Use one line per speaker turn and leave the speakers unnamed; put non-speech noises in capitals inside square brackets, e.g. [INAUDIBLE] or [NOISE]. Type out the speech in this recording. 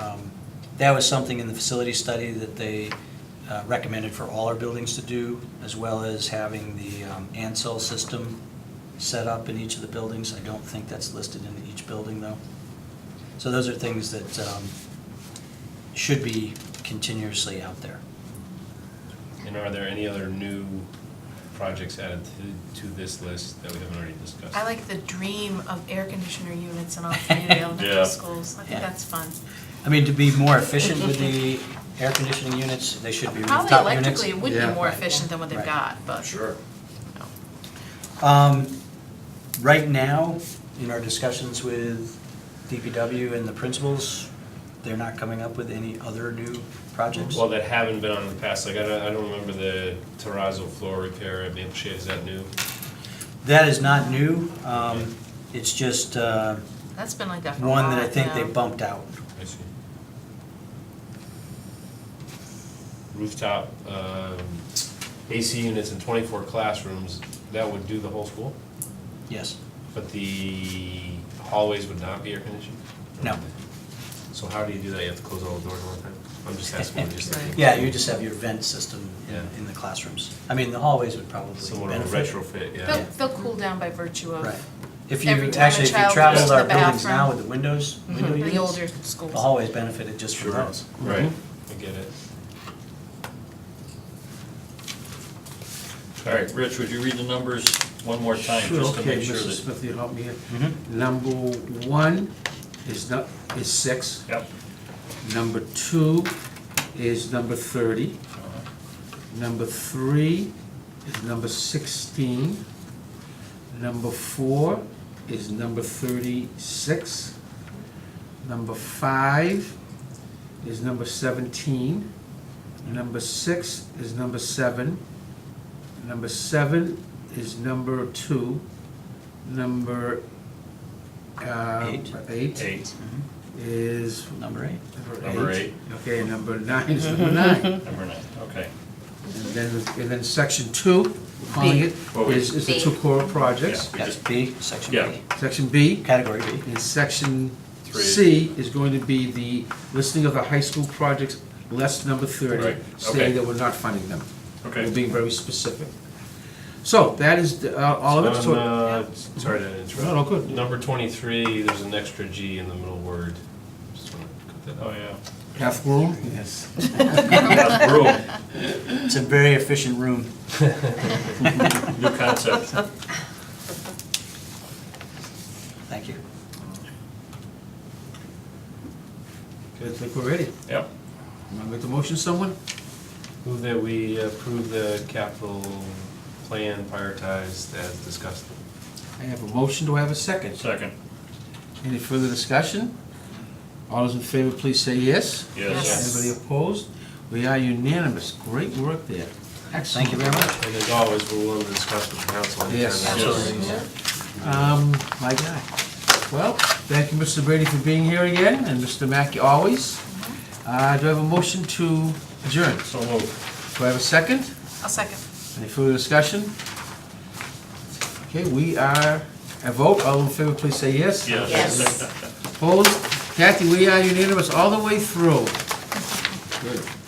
Um, That was something in the facility study that they uh, recommended for all our buildings to do, as well as having the um, ANSEL system set up in each of the buildings. I don't think that's listed in each building, though. So those are things that um, should be continuously out there.
And are there any other new projects added to, to this list that we haven't already discussed?
I like the dream of air conditioner units in all three of the elementary
Yeah.
schools. I think
Yeah.
that's fun.
I mean, to be more efficient with the
[LAUGHS]
air conditioning units, they should be
Probably
rooftop units.
electrically, it would be
Yeah.
more efficient than what they've
Right.
got, but.
Sure.
no.
Um, Right now, in our discussions with DPW and the principals, they're not coming up with any other new projects?
Well, that haven't been on in the past, like, I don't, I don't remember the terrazzo floor repair at Maple Shade, is that new?
That is not new. Um, It's just uh,
That's been like that for a while.
one that I think they
now.
bumped out.
I see. Rooftop, um, AC units in twenty-four classrooms, that would do the whole school,
Yes.
but the hallways would not be air conditioned?
No.
So how do you do that, you have to close all the doors all the time? I'm just asking, I'm
[LAUGHS]
just thinking.
Yeah, you just have your vent system in-
Yeah.
in the classrooms. I mean, the hallways would probably
Somewhat of a
benefit.
retrofit, yeah.
They'll, they'll cool down by virtue of
Right. If
Every
you,
time a
actually, if you
child
goes
traveled
to
our
the
buildings now
bathroom.
with the windows, window
mhm, the older
units,
schools.
the hallways benefited just from
Sure.
those.
Right,
Mm-hmm.
I get it.
All right, Rich, would you read the numbers one more time,
Sure,
just to
okay,
make sure
Mrs.
that... Mm-hmm.
Smith, you help me here.
Mhm.
Number one is not, is six.
Yep.
Number two is number thirty. Number three is number sixteen. Number four is number thirty-six. Number five is number seventeen. Number six is number seven. Number seven is number two. Number, uh,
Eight.
Eight
Eight,
is
Number eight.
number
Number
eight. Okay, and number nine is number nine.
number nine, okay.
And then, and then section two, we're calling it,
Well, we-
is, is the two core projects.
We
That's
just-
B, section
Yeah.
B.
Section B,
Category B.
and section
Three.
C is going to be the listing of the high school projects, less number
Right,
thirty,
okay.
stating that we're not funding them. We're
Okay.
being very specific. So that is the- uh, all of it.
So
So-
on, uh, Sorry to interrupt.
No, no, good.
Number twenty-three, there's an extra G in the middle word. Just wanna cut that out.
Oh, yeah.
Half room? Yes.
That's brutal.
It's a very efficient room.
New concept.
Thank you.
Okay, I think we're ready.
Yep.
Want to make the motion, someone?
Move that we approve the capital plan prioritized as discussed.
I have a motion, do I have a second?
Second,
Any further discussion? All those in favor, please say yes.
yes.
Yes.
Anybody opposed? We are unanimous. Great work there.
Thank you very much.
And as always, we're willing to discuss with the council. anytime
Yes.
there's
Absolutely.
issues.
Um, my guy. Well, thank you, Mr. Brady, for being here again, and Mr. Mackey, always. Uh, do I have a motion to adjourn?
So moved.
Do I have a second?
I'll second.
Any further discussion? Okay, we are, a vote, all in favor, please say yes.
Yes.
Opposed? Kathy, we are unanimous all the way through. Good.